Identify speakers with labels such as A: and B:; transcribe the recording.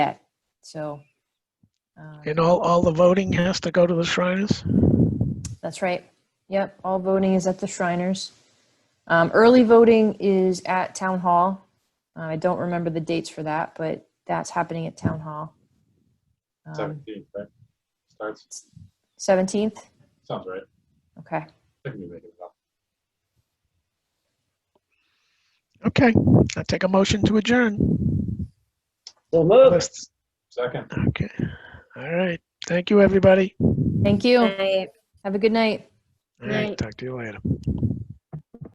A: So. uh,
B: And all, all the voting has to go to the Shriners?
A: That's right. Yep, all voting is at the Shriners. Um, early voting is at Town Hall. Uh, I don't remember the dates for that, but that's happening at Town Hall. Um,
C: Seventeenth, right? Starts,
A: 17th?
C: sounds right.
A: Okay.
C: I can make it up.
B: Okay, I take a motion to adjourn.
D: So moved.
B: Let's-
C: Second.
B: Okay, all right. Thank you, everybody.
A: Thank you.
E: Right.
A: Have a good night.
B: All right,
E: Right.
B: talk to you later.